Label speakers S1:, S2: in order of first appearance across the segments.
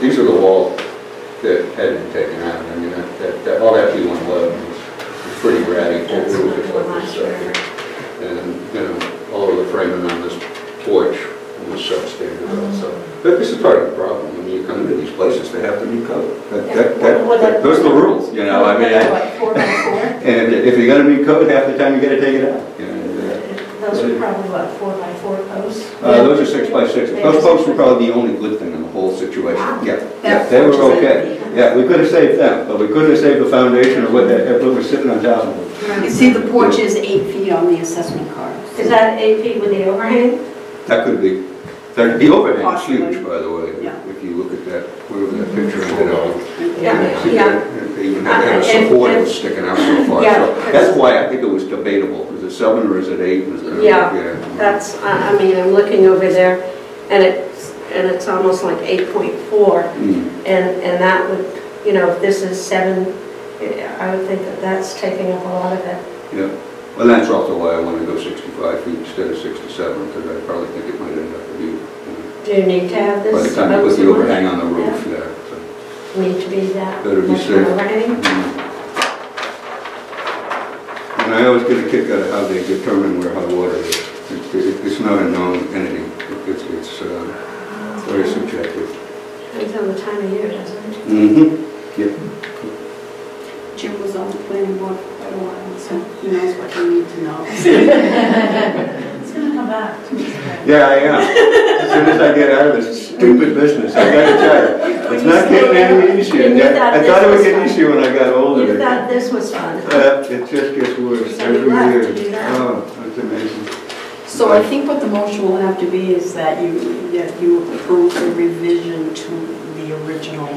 S1: These are the walls that had been taken out, I mean, that- that, that, all that B111 was was pretty ratty, four
S2: That's
S1: wheels,
S2: what
S1: just
S2: it
S1: like
S2: was
S1: this
S2: for.
S1: stuff. And, you know, all of the framing on this porch was substandard
S2: Mm-hmm.
S1: also. But this is part of the problem, when you come into these places, they have to be code. That, that-
S2: Well,
S1: that,
S2: that-
S1: those are the rules, you know, I mean, I-
S2: What, four by four?
S1: and if you're gonna be code, half the time you gotta take it out. you know, and,
S2: Those are probably what, four by four posts?
S1: uh, Those are six by sixes, those folks were probably the only good thing in the whole situation, yeah, yeah, they were okay. Yeah, we could have saved them, but we couldn't have saved the foundation or what that, what was sitting on top of it.
S3: You see, the porch is eight feet on the assessment card.
S2: Is that eight feet with the overhang?
S1: That could be, that, the overhang is
S3: Possibly.
S1: huge, by the way,
S3: Yeah.
S1: if you look at that, wherever that picture ended up.
S2: Yeah,
S1: See
S2: yeah.
S1: that? They Even had a support was sticking out so far,
S2: Yeah,
S1: so that's why I think it was debatable, is it seven or is it eight? Was it-
S4: Yeah, That's, I I mean, I'm looking over there, and it's, and it's almost like 8.4,
S1: Mm,
S4: and, and that would, you know, if this is 7, I would think that that's taking up a lot of it.
S1: Yeah, well, that's also why I want to go sixty-five feet instead of sixty-seven, because I probably think it might end up to be, you know,
S4: Do you need to have this?
S1: by the time you put the
S4: above
S1: overhang on the roof, yeah, so.
S4: Need to be that.
S1: Better be
S4: much
S1: safe.
S4: overhang?
S1: And I always get a kick out of how they determine where hot water is. It- it- It's not a known entity. It- It's, it's uh, very subjective.
S4: Depends on the time of year, doesn't it?
S1: Mm-hmm.
S3: Jim was on the planning board for quite a while, so he knows what you need to know.
S2: It's gonna come back.
S1: Yeah, I am. As soon as I get out of this stupid business, I gotta tell you, it's not getting any easier.
S4: You thought
S1: I thought it would
S4: this
S1: get
S4: was
S1: easier when I got
S4: You
S1: older.
S4: thought this was fun.
S1: Uh, It just gets worse
S4: So you
S1: every
S4: left
S1: year.
S4: to do that.
S1: Oh, that's amazing.
S3: So I think what the motion will have to be is that you, that you approve the revision to the original.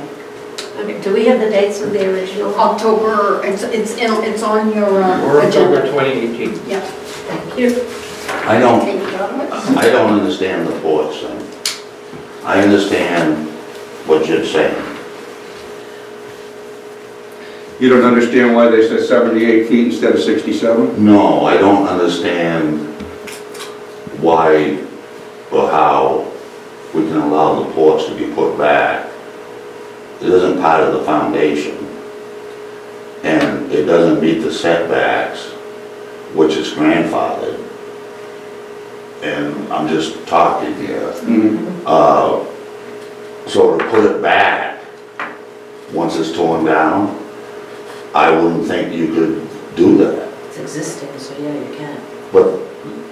S4: Okay, do we have the dates of the original?
S3: October, it's, it's, in- it's on your
S5: Or
S3: uh,
S5: October
S3: agenda.
S5: 2018.
S3: Yeah.
S4: Thank you.
S6: I
S5: Oh.
S6: don't,
S3: Take it out of it.
S6: I don't understand the porch thing. I understand what you're saying.
S1: You don't understand why they said 78 feet instead of 67?
S6: No, I don't understand why or how we can allow the porch to be put back. It isn't part of the foundation. And it doesn't meet the setbacks, which is grandfathered. And I'm just talking here.
S1: Mhm.
S6: Uh, So to put it back, once it's torn down, I wouldn't think you could do that.
S7: It's existing, so yeah, you can.
S6: But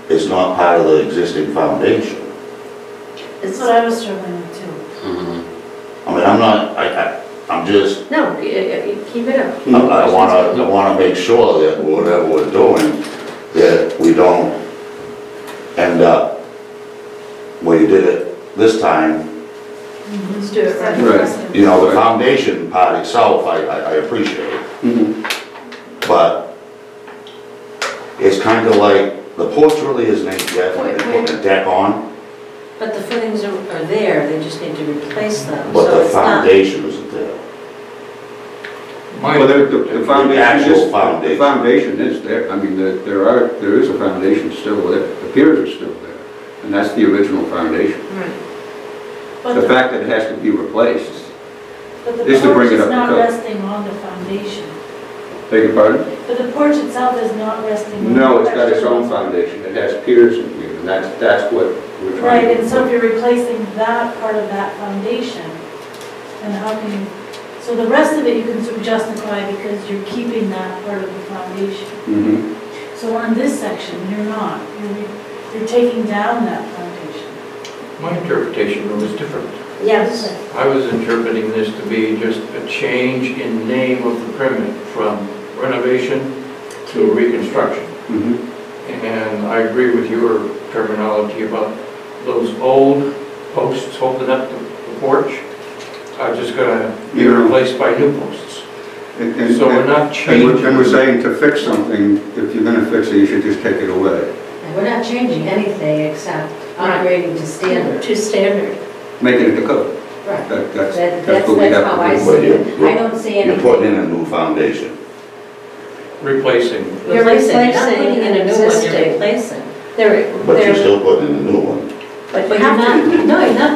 S6: it's not part of the existing foundation.
S7: It's what I was struggling with too.
S6: I mean, I'm not, I, I, I'm just,
S4: No, y- y- keep it up.
S6: I I wanna, I wanna make sure that whatever we're doing, that we don't end up where you did it this time.
S7: Mm-hmm.
S4: Let's do it right.
S1: Right.
S6: You know, the foundation part itself, I, I I appreciate.
S1: Mhm.
S6: But it's kind of like, the porch really isn't any deck, like they put a deck on,
S7: But the footings are, are there, they just need to replace them,
S6: but
S7: so
S6: the
S7: it's not.
S6: foundation isn't there.
S1: Well, the- the the foundation
S6: actual
S1: is, the
S6: foundation.
S1: foundation is there, I mean, the- there are, there is a foundation still there, the piers are still there, and that's the original foundation.
S7: But
S1: The
S7: the,
S1: fact that it has to be replaced,
S7: but the
S1: is to
S7: porch
S1: bring it up
S7: is
S1: to
S7: not
S1: code.
S7: resting on the foundation.
S1: beg your pardon?
S7: But the porch itself is not resting
S4: Mm-hmm.
S7: on the
S1: No, it's got its own foundation, it has piers in here, and that's, that's what we're trying
S7: Right,
S1: to...
S7: and so if you're replacing that part of that foundation, then how can you, so the rest of it you can sort of justify because you're keeping that part of the foundation.
S1: Mhm.
S7: So on this section, you're not, you're, re- you're taking down that foundation.
S5: My interpretation was different.
S4: Yes.
S5: I was interpreting this to be just a change in name of the permit from renovation to reconstruction.
S1: Mhm.
S5: And I agree with your terminology about those old posts holding up the the porch are just gonna be
S1: Yeah.
S5: replaced by new posts.
S1: And- and-
S5: So we're not
S1: And
S5: changing.
S1: we're, and we're saying to fix something, if you're gonna fix it, you should just take it away,
S7: And we're not changing anything except upgrading to standard.
S4: To standard.
S1: make it into code.
S7: Right.
S1: That- That's,
S7: That-
S1: that's what we
S7: that's- that's
S1: have
S7: how I
S1: to do.
S7: see
S6: But you're-
S7: it. I don't see
S6: You're
S7: anything.
S6: putting in a new foundation.
S5: Replacing.
S4: You're
S7: Replacing,
S4: replacing an existing.
S7: replacing.
S4: They're,
S6: But you're
S4: they're,
S6: still putting in a new one.
S4: but you
S7: But you're
S4: have to.
S7: not, no, you're not